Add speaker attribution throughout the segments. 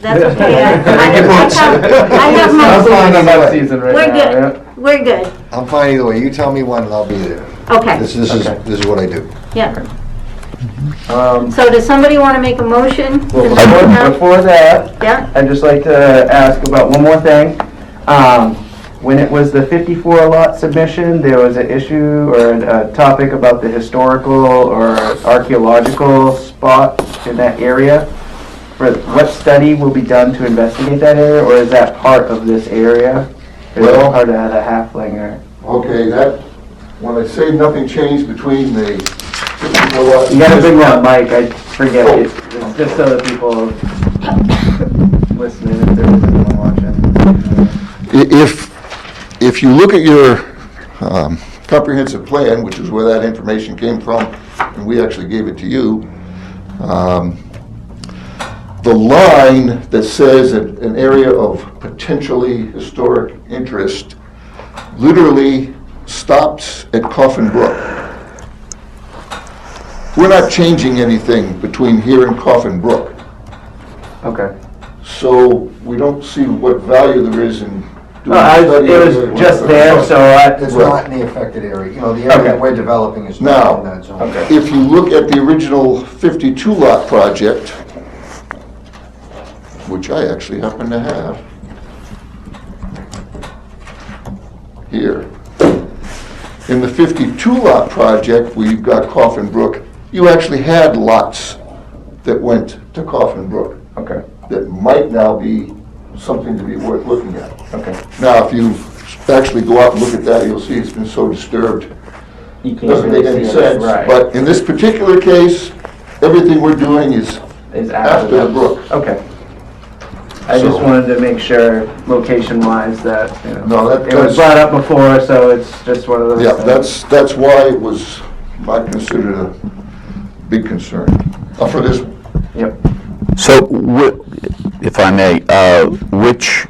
Speaker 1: That's okay. I-
Speaker 2: Thank you
Speaker 1: I
Speaker 2: much.
Speaker 1: have- I have my
Speaker 2: I'm fine
Speaker 1: season.
Speaker 2: on my season right
Speaker 1: We're
Speaker 2: now,
Speaker 1: good,
Speaker 2: yeah.
Speaker 1: we're good.
Speaker 2: I'm fine either way. You tell me when and I'll be there. This,
Speaker 1: Okay,
Speaker 2: this is,
Speaker 3: Okay.
Speaker 2: this is what I do.
Speaker 1: yeah.
Speaker 3: Um,
Speaker 1: So does somebody want to make a motion?
Speaker 3: well,
Speaker 1: Does someone
Speaker 3: before,
Speaker 1: have-
Speaker 3: before that,
Speaker 1: Yeah,
Speaker 3: I'd just like to ask about one more thing. Um, when it was the 54 lot submission, there was an issue or a topic about the historical or archaeological spot in that area. For what study will be done to investigate that area, or is that part of this area? Is
Speaker 4: Well-
Speaker 3: that part of the halfling or?
Speaker 4: Okay, that, when I say nothing changed between the,
Speaker 3: You gotta bring that mic, I forget, it's it's just so that people listening, if there was anyone watching.
Speaker 4: If, if you look at your um, comprehensive plan, which is where that information came from, and we actually gave it to you, um, the line that says that an area of potentially historic interest literally stops at Coffin Brook. We're not changing anything between here and Coffin Brook.
Speaker 3: Okay.
Speaker 4: So we don't see what value there is in doing
Speaker 3: No, Uh, I
Speaker 4: a
Speaker 3: was,
Speaker 4: study.
Speaker 3: it was just there, so I,
Speaker 2: It's
Speaker 4: Right.
Speaker 2: not in the affected area, you know, the area
Speaker 3: Okay.
Speaker 2: we're developing is not in
Speaker 4: No.
Speaker 2: that zone.
Speaker 3: okay,
Speaker 4: If you look at the original 52 lot project, which I actually happen to have here, in the 52 lot project, we've got Coffin Brook, you actually had lots that went to Coffin Brook
Speaker 3: okay,
Speaker 4: that might now be something to be worth looking at.
Speaker 3: okay.
Speaker 4: Now, if you actually go out and look at that, you'll see it's been so disturbed,
Speaker 3: You can't
Speaker 4: doesn't make
Speaker 3: really
Speaker 4: any
Speaker 3: see it,
Speaker 4: sense.
Speaker 3: right,
Speaker 4: But in this particular case, everything we're doing is
Speaker 3: Is
Speaker 4: after the
Speaker 3: that.
Speaker 4: brook.
Speaker 3: Okay. I
Speaker 4: So-
Speaker 3: just wanted to make sure, location-wise, that, you know,
Speaker 4: No, that,
Speaker 3: it was
Speaker 4: that's,
Speaker 3: brought up before, so it's just one of those.
Speaker 4: yeah,
Speaker 3: things.
Speaker 4: that's, that's why it was not considered a big concern. Uh, For this,
Speaker 3: Yep.
Speaker 5: So, whi- if I may, uh, which,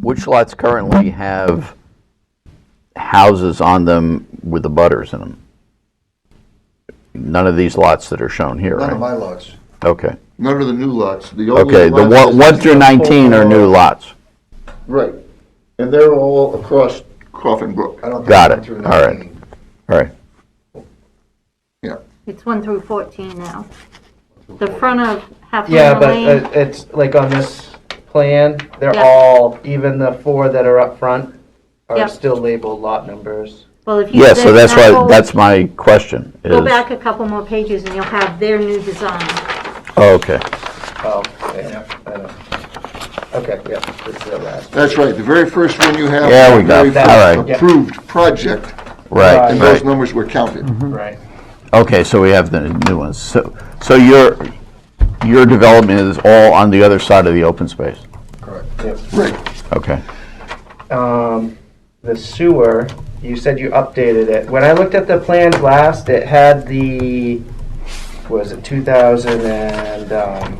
Speaker 5: which lots currently have houses on them with the butters in them? None of these lots that are shown here,
Speaker 2: None of my
Speaker 5: right?
Speaker 2: lots.
Speaker 5: Okay,
Speaker 4: none of the new lots, the only.
Speaker 5: okay, the
Speaker 4: lot
Speaker 5: one
Speaker 4: is-
Speaker 5: one through 19 are new lots.
Speaker 4: Right, and they're all across Coffin Brook,
Speaker 2: I don't think
Speaker 5: Got
Speaker 2: I'm
Speaker 5: it.
Speaker 2: through
Speaker 5: All right.
Speaker 2: 19.
Speaker 5: All right,
Speaker 4: yeah.
Speaker 1: it's 1 through 14 now. The front of Half
Speaker 3: Yeah,
Speaker 1: Moon
Speaker 3: but
Speaker 1: Lane,
Speaker 3: uh, it's like on this plan, they're
Speaker 1: Yeah.
Speaker 3: all, even the four that are up front
Speaker 1: Yeah.
Speaker 3: are still labeled lot numbers.
Speaker 1: well, if you.
Speaker 5: yeah, so
Speaker 1: zip
Speaker 5: that's
Speaker 1: that
Speaker 5: why,
Speaker 1: whole-
Speaker 5: that's my question, is,
Speaker 1: Go back a couple more pages and you'll have their new design.
Speaker 5: oh, okay,
Speaker 3: Oh, yeah, I know. Okay, yeah, this is the last.
Speaker 4: That's right, the very first one you have.
Speaker 5: Yeah, we
Speaker 4: the
Speaker 5: got
Speaker 4: very
Speaker 5: it. All
Speaker 4: first
Speaker 5: right.
Speaker 4: Approved project,
Speaker 5: right,
Speaker 4: and those
Speaker 5: right. Mm-hmm.
Speaker 4: numbers were counted.
Speaker 3: Mhm. Right.
Speaker 5: Okay, so we have the new ones, so, so your, your development is all on the other side of the open space,
Speaker 2: Correct.
Speaker 4: Right,
Speaker 5: okay?
Speaker 3: um, the sewer, you said you updated it. When I looked at the plans last, it had the, was it 2008?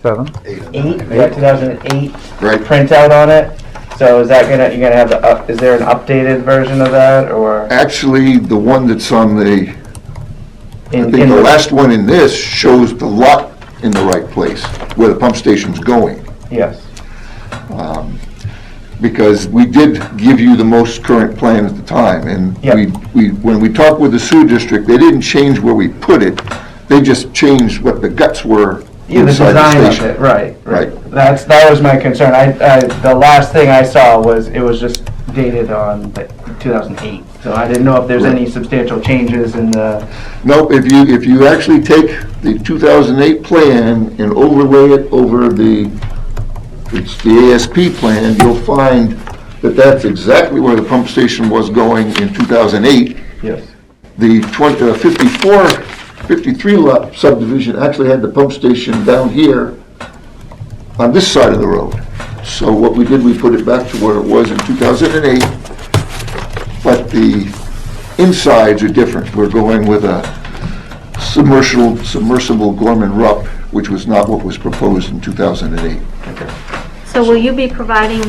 Speaker 6: Seven.
Speaker 2: Eight and nine.
Speaker 3: um, Yeah, 2008
Speaker 4: right.
Speaker 3: printout on it. So is that gonna, you're gonna have the, up- is there an updated version of that or?
Speaker 4: Actually, the one that's on the, I
Speaker 3: in
Speaker 4: think the last one in this shows the lot in the right place, where the pump station's going,
Speaker 3: Yes.
Speaker 4: because we did give you the most current plan at the time, and
Speaker 3: Yeah.
Speaker 4: we, we, when we talked with the sewer district, they didn't change where we put it, they just changed what the guts were
Speaker 3: Yeah, the
Speaker 4: inside
Speaker 3: design
Speaker 4: the
Speaker 3: of it,
Speaker 4: station.
Speaker 3: right.
Speaker 4: Right.
Speaker 3: That's, that was my concern. I, I, the last thing I saw was, it was just dated on like 2008. So I didn't know if there's
Speaker 4: Right.
Speaker 3: any substantial changes in the,
Speaker 4: No, if you, if you actually take the 2008 plan and overlay it over the, it's the ASP plan, you'll find that that's exactly where the pump station was going in 2008.
Speaker 3: yes.
Speaker 4: The 20 uh, 54, 53 lot subdivision actually had the pump station down here on this side of the road. So what we did, we put it back to where it was in 2008, but the insides are different. We're going with a submersible, submersible Gorman Rupp, which was not what was proposed in 2008.
Speaker 1: So will you be providing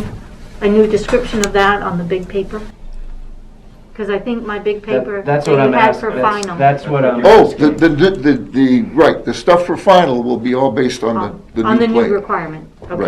Speaker 1: a new description of that on the big paper? Because I think my big paper that
Speaker 3: That's
Speaker 1: you
Speaker 3: what I'm
Speaker 1: had for
Speaker 3: asking. That's-
Speaker 1: final.
Speaker 3: That's what I'm.
Speaker 4: Oh, the, the, the- the, the, right, the stuff for final will be all based on the, the new plan.
Speaker 1: On the new requirement, okay.